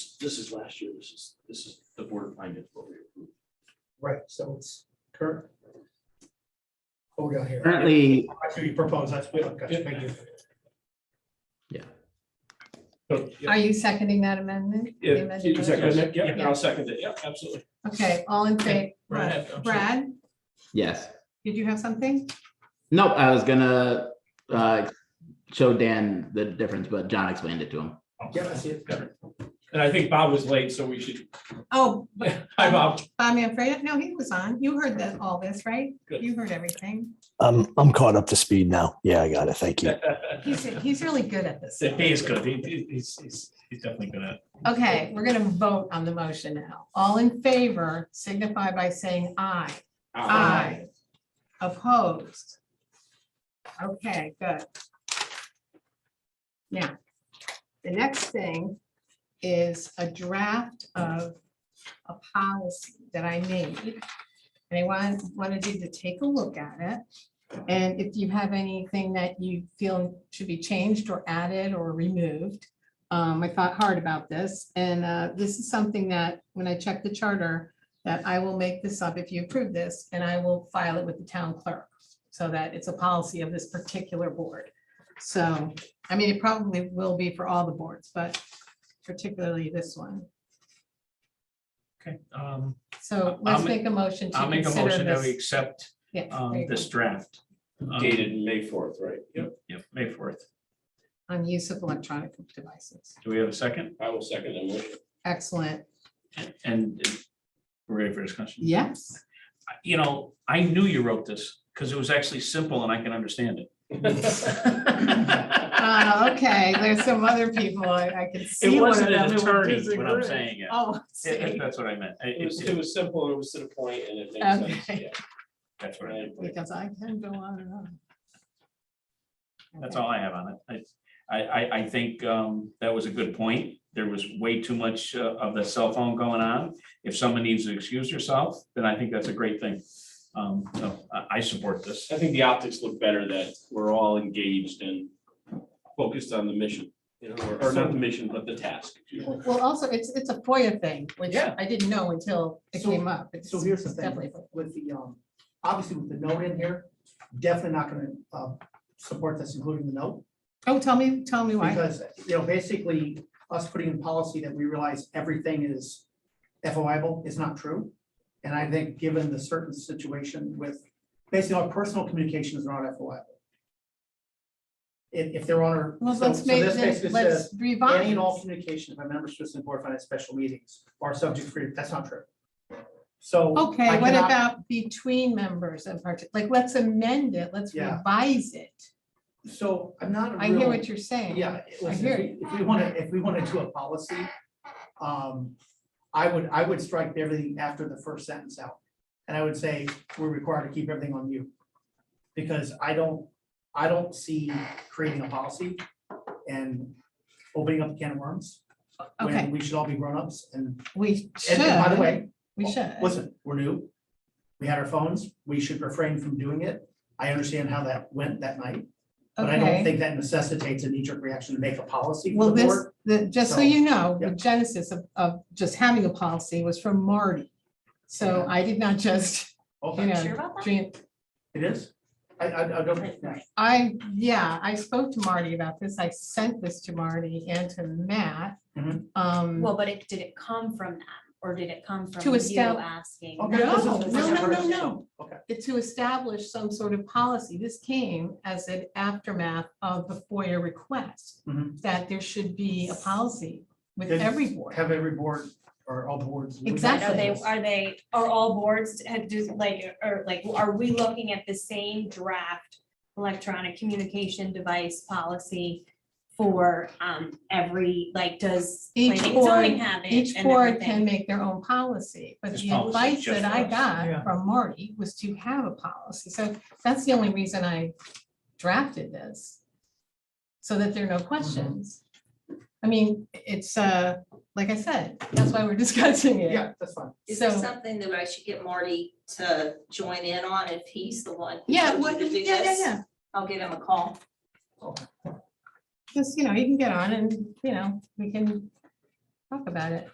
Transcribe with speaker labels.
Speaker 1: this is last year, this is, this is the board of finance, what we approved.
Speaker 2: Right, so it's current. What we got here?
Speaker 3: Currently,
Speaker 2: I see you propose, that's, we got you, thank you.
Speaker 3: Yeah.
Speaker 2: So, yeah,
Speaker 4: Are you seconding that amendment? The
Speaker 5: Yeah,
Speaker 4: amended
Speaker 5: you second
Speaker 4: motion?
Speaker 5: it? Yeah, I'll second it. Yeah, absolutely.
Speaker 4: Okay, all in favor?
Speaker 5: Brad, I'm sorry.
Speaker 4: Brad,
Speaker 3: yes.
Speaker 4: did you have something?
Speaker 3: Nope, I was gonna uh show Dan the difference, but John explained it to him.
Speaker 2: Yeah, I see it.
Speaker 5: And I think Bob was late, so we should,
Speaker 4: Oh,
Speaker 5: hi, Bob.
Speaker 4: Bob Manfred, no, he was on. You heard that, all this, right?
Speaker 5: Good.
Speaker 4: You heard everything.
Speaker 6: I'm I'm caught up to speed now. Yeah, I got it. Thank you.
Speaker 5: The
Speaker 4: He's, he's really good at this.
Speaker 5: day is good. He- he- He's, he's, he's definitely good at.
Speaker 4: Okay, we're gonna vote on the motion now. All in favor signify by saying aye. Aye. Opposed? Okay, good. Now, the next thing is a draft of a policy that I made. And I want, wanted you to take a look at it. And if you have anything that you feel should be changed or added or removed, um, I thought hard about this. And, uh, this is something that, when I checked the charter, that I will make this up if you approve this, and I will file it with the town clerk. So that it's a policy of this particular board. So, I mean, it probably will be for all the boards, but particularly this one.
Speaker 7: Okay, um,
Speaker 4: So
Speaker 7: I'll
Speaker 4: let's
Speaker 7: ma-
Speaker 4: make a motion to
Speaker 7: I'll make a
Speaker 4: consider
Speaker 7: motion that we
Speaker 4: this.
Speaker 7: accept
Speaker 4: Yeah,
Speaker 7: um,
Speaker 4: there you
Speaker 7: this
Speaker 4: go.
Speaker 7: draft. um,
Speaker 1: Dated May fourth, right?
Speaker 7: Yep, yep, May fourth.
Speaker 4: On use of electronic devices.
Speaker 7: Do we have a second?
Speaker 1: I will second the motion.
Speaker 4: Excellent.
Speaker 7: And- And we're ready for discussion.
Speaker 4: Yes.
Speaker 7: You know, I knew you wrote this because it was actually simple and I can understand it.
Speaker 4: Uh, okay, there's some other people I, I could see.
Speaker 7: It
Speaker 4: one of
Speaker 7: wasn't
Speaker 4: them
Speaker 7: an
Speaker 4: who would
Speaker 7: attorney, what I'm
Speaker 4: disagree.
Speaker 7: saying. yeah.
Speaker 4: Oh, I
Speaker 7: If- if
Speaker 4: see.
Speaker 7: That's what I meant. I-
Speaker 1: It was,
Speaker 7: it's-
Speaker 1: it was simple, it was to the point, and it makes sense.
Speaker 4: Okay.
Speaker 1: yeah.
Speaker 7: That's what I meant.
Speaker 1: Right.
Speaker 4: because I can go on and on.
Speaker 7: That's
Speaker 4: Okay.
Speaker 7: all I have on it. I, I, I, I think, um, that was a good point. There was way too much uh, of the cell phone going on. If someone needs to excuse herself, then I think that's a great thing. Um, so I, I support this.
Speaker 1: I think the optics look better that we're all engaged and focused on the mission, you know, or- or not the mission, but the task.
Speaker 4: Well, well, also, it's, it's a FOIA thing, which
Speaker 7: Yeah.
Speaker 4: I didn't know until it
Speaker 2: So-
Speaker 4: came up. It's-
Speaker 2: So here's the
Speaker 4: it's
Speaker 2: thing,
Speaker 4: definitely FOIA.
Speaker 2: with the, um, obviously with the note in here, definitely not gonna, um, support this, including the note.
Speaker 4: Oh, tell me, tell me why.
Speaker 2: Because, you know, basically, us putting in policy that we realize everything is FOIable is not true. And I think, given the certain situation with, basically, our personal communications are not FOIable. If, if they're on our.
Speaker 4: Well,
Speaker 2: so-
Speaker 4: let's
Speaker 2: so
Speaker 4: make,
Speaker 2: this
Speaker 4: this-
Speaker 2: basically says,
Speaker 4: let's
Speaker 2: Any
Speaker 4: revise.
Speaker 2: and all communications by members to the board of finance special meetings are subject to free, that's not true. So. I
Speaker 4: Okay, what
Speaker 2: cannot-
Speaker 4: about between members and part, like, let's amend it, let's
Speaker 2: Yeah.
Speaker 4: revise it.
Speaker 2: So I'm not. a
Speaker 4: I hear
Speaker 2: real-
Speaker 4: what you're saying.
Speaker 2: Yeah, listen,
Speaker 4: hear
Speaker 2: if we- if we want to, if we want to do a policy, um, I would, I would strike everything after the first sentence out. And I would say, we're required to keep everything on you. Because I don't, I don't see creating a policy and opening up a can of worms.
Speaker 4: Okay.
Speaker 2: When we should all be grown-ups and,
Speaker 4: We should.
Speaker 2: and and by the way,
Speaker 4: We should.
Speaker 2: listen, we're new. We had our phones, we should refrain from doing it. I understand how that went that night. But I don't
Speaker 4: Okay,
Speaker 2: think that necessitates a knee-jerk reaction to make a policy for
Speaker 4: well,
Speaker 2: the
Speaker 4: this,
Speaker 2: board.
Speaker 4: the, just so
Speaker 2: So,
Speaker 4: you know, the
Speaker 2: yeah.
Speaker 4: genesis of, of just having a policy was from Marty. So
Speaker 2: Yeah.
Speaker 4: I did not just, you
Speaker 2: Okay,
Speaker 4: know, dream,
Speaker 2: it is? I, I, I don't, yeah.
Speaker 4: I, yeah, I spoke to Marty about this. I sent this to Marty and to Matt.
Speaker 2: Mhm.
Speaker 4: Um,
Speaker 8: Well, but it, did it come from them, or did it come from
Speaker 4: To
Speaker 8: you
Speaker 4: estab-
Speaker 8: asking?
Speaker 2: Okay,
Speaker 4: No,
Speaker 2: this is- this is
Speaker 4: no, no, no,
Speaker 2: first.
Speaker 4: no.
Speaker 2: Okay,
Speaker 4: it- to establish some sort of policy. This came as an aftermath of the FOIA request
Speaker 2: Mhm.
Speaker 4: that there should be a policy with
Speaker 2: Then
Speaker 4: every board.
Speaker 2: have every board or all boards. look at
Speaker 4: Exactly.
Speaker 8: Are they,
Speaker 2: this.
Speaker 8: are they, are all boards, uh, do, like, or like, are we looking at the same draft electronic communication device policy for, um, every, like, does
Speaker 4: Each
Speaker 8: planning and
Speaker 4: board-
Speaker 8: zoning have it?
Speaker 4: Each
Speaker 8: and
Speaker 4: board
Speaker 8: everything?
Speaker 4: can make their own policy, but
Speaker 7: This
Speaker 4: the
Speaker 7: policy is
Speaker 4: advice
Speaker 7: just
Speaker 4: that
Speaker 7: for
Speaker 4: I
Speaker 7: us.
Speaker 2: Yeah.
Speaker 4: got from Marty was to have a policy. So that's the only reason I drafted this. So that there are no questions. I mean, it's, uh, like I said, that's why we're discussing it.
Speaker 2: Yeah, that's fine.
Speaker 9: Is there
Speaker 4: So-
Speaker 9: something that I should get Marty to join in on if he's the one? who
Speaker 4: Yeah,
Speaker 9: told you
Speaker 4: what,
Speaker 9: to do
Speaker 4: yeah, yeah,
Speaker 9: this?
Speaker 4: yeah.
Speaker 9: I'll give him a call.
Speaker 4: Just, you know, you can get on and, you know, we can talk about it.